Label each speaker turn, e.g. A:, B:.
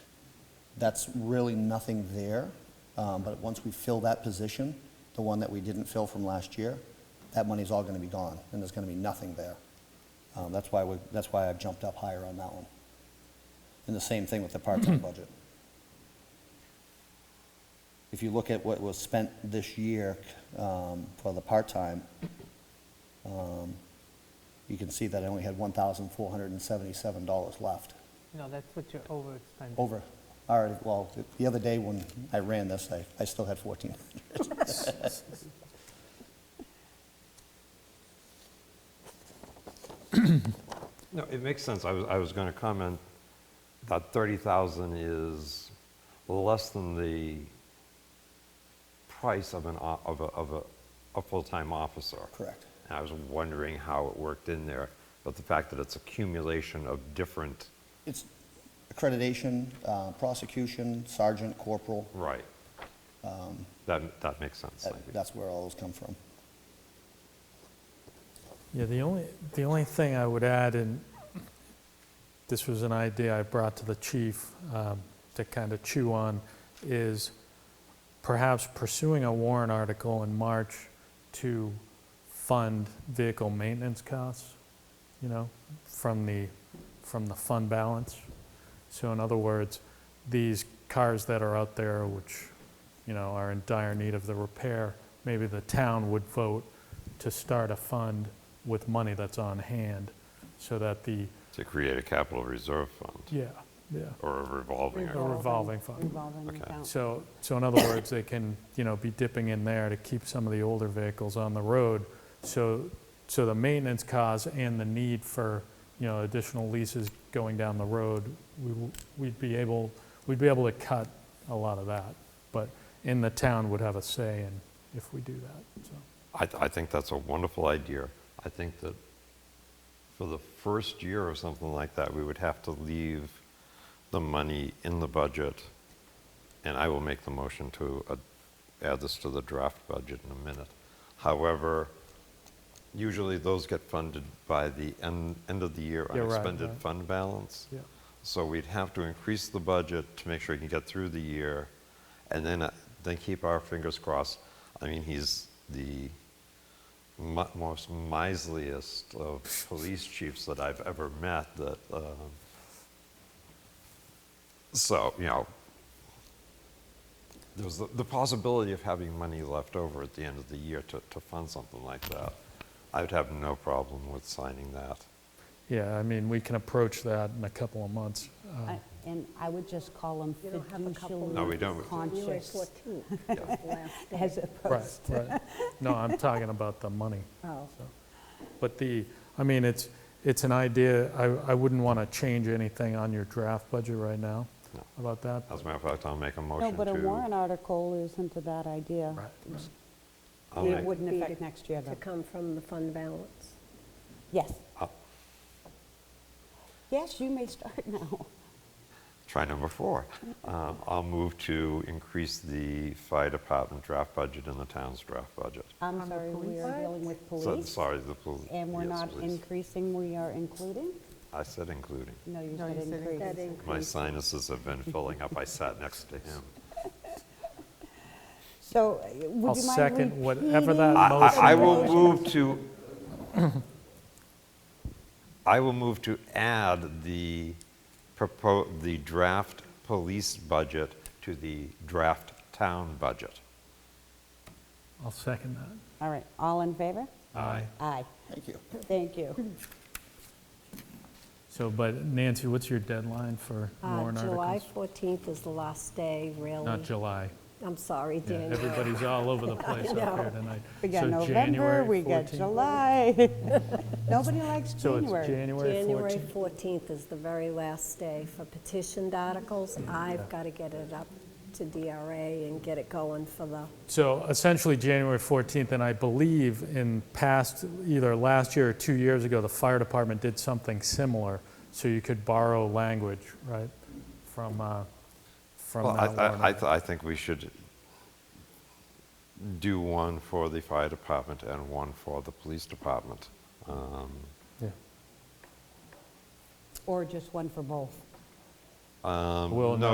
A: that's really nothing there. Um, But once we fill that position, the one that we didn't fill from last year, that money's all going to be gone, and there's going to be nothing there. Um, That's why, we. that's why I've jumped up higher on that one. And the same thing with the part-time budget. If you look at what was spent this year um, for the part-time, um, you can see that I only had $1,477 left
B: No, that's what you're overexpending.
A: over. All right, well, th- the other day when I ran this, I, I still had 14.
C: No, it makes sense. I was, I was going to comment that 30,000 is less than the price of an, o- of a, of a, a full-time officer.
A: Correct.
C: And I was wondering how it worked in there, but the fact that it's accumulation of different,
A: It's accreditation, uh, prosecution, sergeant, corporal,
C: right. Um, That, that makes sense.
A: that-
C: thank you.
A: that's where all those come from.
D: Yeah, the only, the only thing I would add, and this was an idea I brought to the chief um, to kind of chew on, is perhaps pursuing a warrant article in March to fund vehicle maintenance costs, you know, from the, from the fund balance. So in other words, these cars that are out there, which, you know, are in dire need of the repair, maybe the town would vote to start a fund with money that's on hand, so that the,
C: To create a capital reserve fund
D: yeah, yeah,
C: or a revolving.
D: a
C: account.
D: revolving fund.
E: Revolving
C: Okay.
E: account.
D: So, so in other words, they can, you know, be dipping in there to keep some of the older vehicles on the road. So, so the maintenance costs and the need for, you know, additional leases going down the road, we, w- we'd be able, we'd be able to cut a lot of that. But, and the town would have a say in if we do that, so.
C: I, I think that's a wonderful idea. I think that for the first year or something like that, we would have to leave the money in the budget, and I will make the motion to uh, add this to the draft budget in a minute. However, usually those get funded by the end, end of the year
D: Yeah, right,
C: unexpended
D: right.
C: fund balance.
D: Yeah.
C: So we'd have to increase the budget to make sure he can get through the year, and then, uh, then keep our fingers crossed. I mean, he's the mi- most miserliest of police chiefs that I've ever met, that, um, so, you know, there's the, the possibility of having money left over at the end of the year to, to fund something like that. I'd have no problem with signing that.
D: Yeah, I mean, we can approach that in a couple of months. Uh,
E: I- And I I would just call them
F: You don't have a couple
C: No, we don't.
E: fiduciary
F: January
E: conscious
F: 14th.
C: Yeah.
E: as
D: Right,
E: opposed to
D: right. No, I'm talking about the money.
E: Oh.
D: But the, I mean, it's, it's an idea, I, I wouldn't want to change anything on your draft budget right now
C: No. Oh.
D: about that.
C: As a matter of fact, I'll make a motion
E: No,
C: to.
E: but a warrant article isn't a bad idea.
D: Right, right.
C: I'll
E: It
C: make-
E: wouldn't
F: Be to-
E: affect next year,
F: To
E: though.
F: come from the fund balance.
E: Yes.
C: I'll
E: Yes, you may start now.
C: Try number four. Um, I'll move to increase the fire department draft budget and the town's draft budget.
E: I'm sorry, we are dealing with
C: So-
E: police.
C: Sorry, the police.
E: And we're not
C: including.
E: increasing, we are including?
C: I said including.
E: No, you
B: No,
E: said
B: you said
F: That
E: increase.
C: My
F: increase,
C: sinuses have been filling up. I sat next to him.
E: So uh, would you
D: I'll
E: mind repeating?
D: second whatever that
C: I-
D: motion was.
C: I I will move to, I will move to add the propo the draft police budget to the draft town budget.
D: I'll second that.
E: All right, all in favor?
D: Aye.
E: Aye,
A: Thank you.
E: thank you.
D: So, but Nancy, what's your deadline for
F: Uh,
D: warrant
F: July
D: articles?
F: 14th is the last day, really.
D: Not July.
F: I'm sorry,
D: Yeah,
F: Daniel.
D: Everybody's all over the place up
F: know.
D: here tonight.
E: We got
D: So
E: November,
D: January
E: we got
D: 14th.
E: July. Nobody likes
D: So it's
E: January.
D: January 14th.
F: January 14th is the very last day for petitioned articles. I've got to get it up to DRA and get it going for the,
D: So essentially, January 14th, and I believe in past, either last year or two years ago, the fire department did something similar, so you could borrow language, right, from, uh, from
C: Well, I,
D: that warrant
C: I, I,
D: article.
C: th- I think we should do one for the fire department and one for the police department. Um,
D: Yeah.
E: Or just one for both.
C: um,
D: Well,
C: no,